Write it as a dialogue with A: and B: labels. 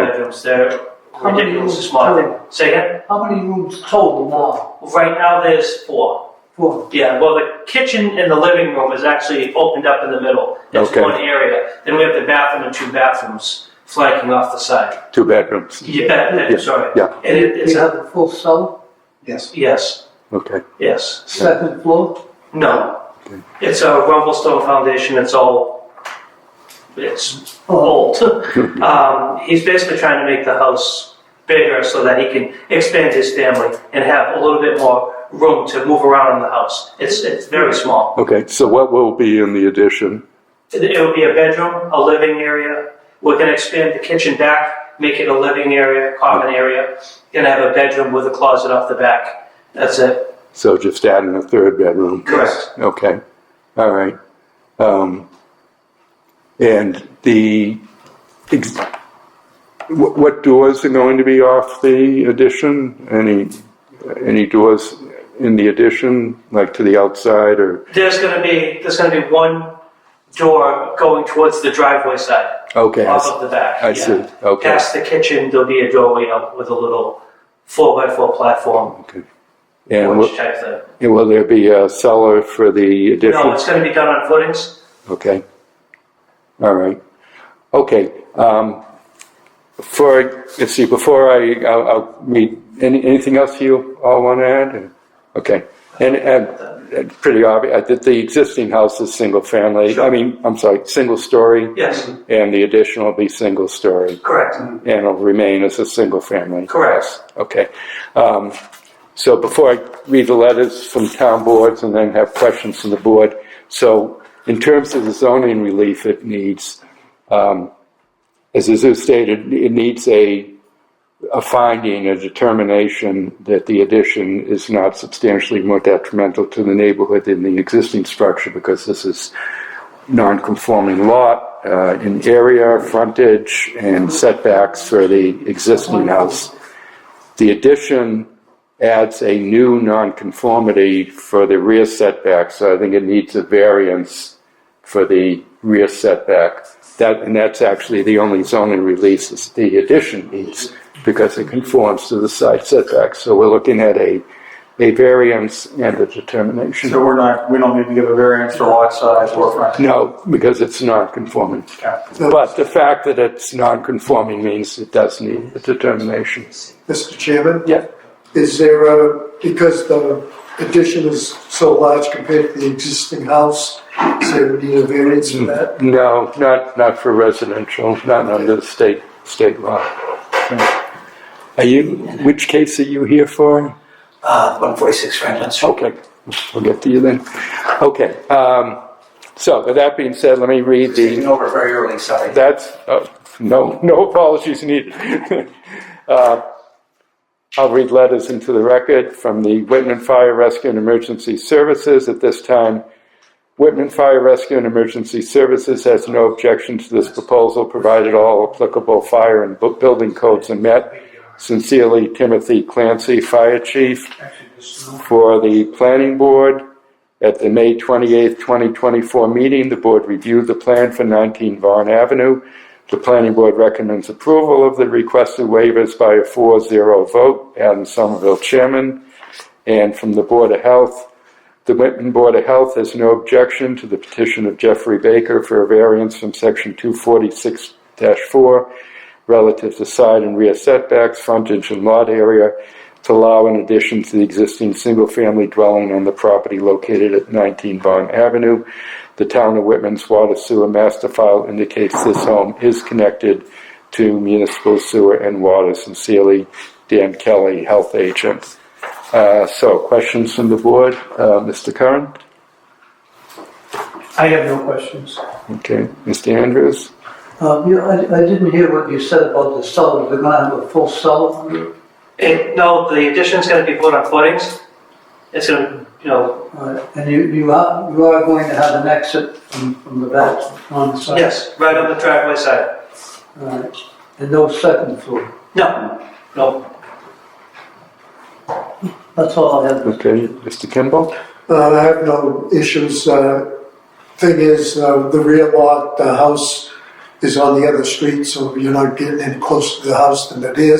A: bedrooms, they're
B: How many
A: ridiculously
B: rooms
A: small.
B: total?
A: Say again?
B: How many rooms total now?
A: Right now, there's four.
B: Four.
A: Yeah, well, the kitchen and the living room is actually opened up in the middle. That's
C: Okay.
A: one area. Then we have the bathroom and two bathrooms flanking off the side.
C: two bedrooms.
A: Yeah,
C: Yeah,
A: that- sorry.
C: yeah.
A: And it- it's,
B: You
A: a-
B: have a full cell,
D: Yes.
A: yes,
C: Okay.
A: yes.
B: second floor?
A: No.
C: Okay.
A: It's a rumblestone foundation, it's all, it's old. Um, He's basically trying to make the house bigger so that he can expand his family and have a little bit more room to move around in the house. It's, it's very small.
C: Okay. So what will be in the addition?
A: It it would be a bedroom, a living area. We're gonna expand the kitchen back, make it a living area, common area. Gonna have a bedroom with a closet off the back. That's it.
C: So just adding a third bedroom.
A: Correct.
C: Okay. All right. Um, and the ex- what, what doors are going to be off the addition? Any any doors in the addition, like to the outside or?
A: There's gonna be, there's gonna be one door going towards the driveway side.
C: Okay. I
A: Off
C: see.
A: of the back.
C: I
A: yeah.
C: see. Okay.
A: Past the kitchen, there'll be a doorway up with a little four by four platform,
C: Okay. And
A: which
C: will,
A: type thing.
C: and will there be a cellar for the addition?
A: No, it's gonna be done on footings.
C: Okay. All right. Okay. Um, for, let's see, before I, I'll, I'll meet, any, anything else you all want to add? Okay. And, and and pretty obvious that the existing house is single family. I mean, I'm sorry, single story,
A: Yes,
C: and the addition will be single story
A: correct.
C: and it'll remain as a single family.
A: Correct.
C: house. Okay. Um, so before I read the letters from town boards and then have questions from the board, so in terms of the zoning relief it needs, um, as Azu stated, it needs a, a finding, a determination that the addition is not substantially more detrimental to the neighborhood than the existing structure because this is non-conforming lot uh, in area, frontage, and setbacks for the existing house. The addition adds a new nonconformity for the rear setback, so I think it needs a variance for the rear setback. That, and that's actually the only zoning release is the addition needs, because it conforms to the side setback. So we're looking at a, a variance and a determination.
D: So we're not, we don't need to give a variance for lot size or front.
C: No, because it's non-conforming. But the fact that it's non-conforming means it does need a determination.
E: Mr. Chairman?
C: Yeah,
E: Is there a, because the addition is so large compared to the existing house, is there any variance in that?
C: no, not, not for residential, not under the state, state law. Are you, which case are you here for?
D: Uh, one forty-six Franklin Street.
C: Okay, we'll get to you then. Okay, um, so with that being said, let me read the.
D: Taking over very early, sorry.
C: That's, uh, no, no apologies needed. Uh, I'll read letters into the record from the Whitman Fire Rescue and Emergency Services. At this time, Whitman Fire Rescue and Emergency Services has no objection to this proposal, provided all applicable fire and bu- building codes are met. Sincerely, Timothy Clancy, Fire Chief. For the Planning Board, at the May 28, 2024 meeting, the board reviewed the plan for 19 Vaughan Avenue. The planning board recommends approval of the requested waivers by a 4-0 vote, Adam Somerville chairman. And from the Board of Health, the Whitman Board of Health has no objection to the petition of Jeffrey Baker for a variance from section 246-4 relative to side and rear setbacks, frontage and lot area to allow an addition to the existing single-family dwelling on the property located at 19 Vaughan Avenue. The town of Whitman's water sewer master file indicates this home is connected to municipal sewer and water. Sincerely, Dan Kelly, health agent. Uh, So, questions from the board? Uh, Mr. Curran?
D: I have no questions.
C: Okay. Mr. Andrews?
B: Um, you, I, I didn't hear what you said about the cellar, they're gonna have a full cellar?
A: It, no, the addition's gonna be put on footings. It's gonna, you know,
B: Uh, And you, you are, you are going to have an exit from, from the back on the side?
A: yes, right on the driveway side.
B: All right. And no second floor?
A: No, no,
B: That's all I have. Mr.
C: Okay. Mr. Kimball?
E: Uh, I have no issues. Uh, Thing is, uh, the rear lot, the house is on the other street, so you're not getting any closer to the house than it is.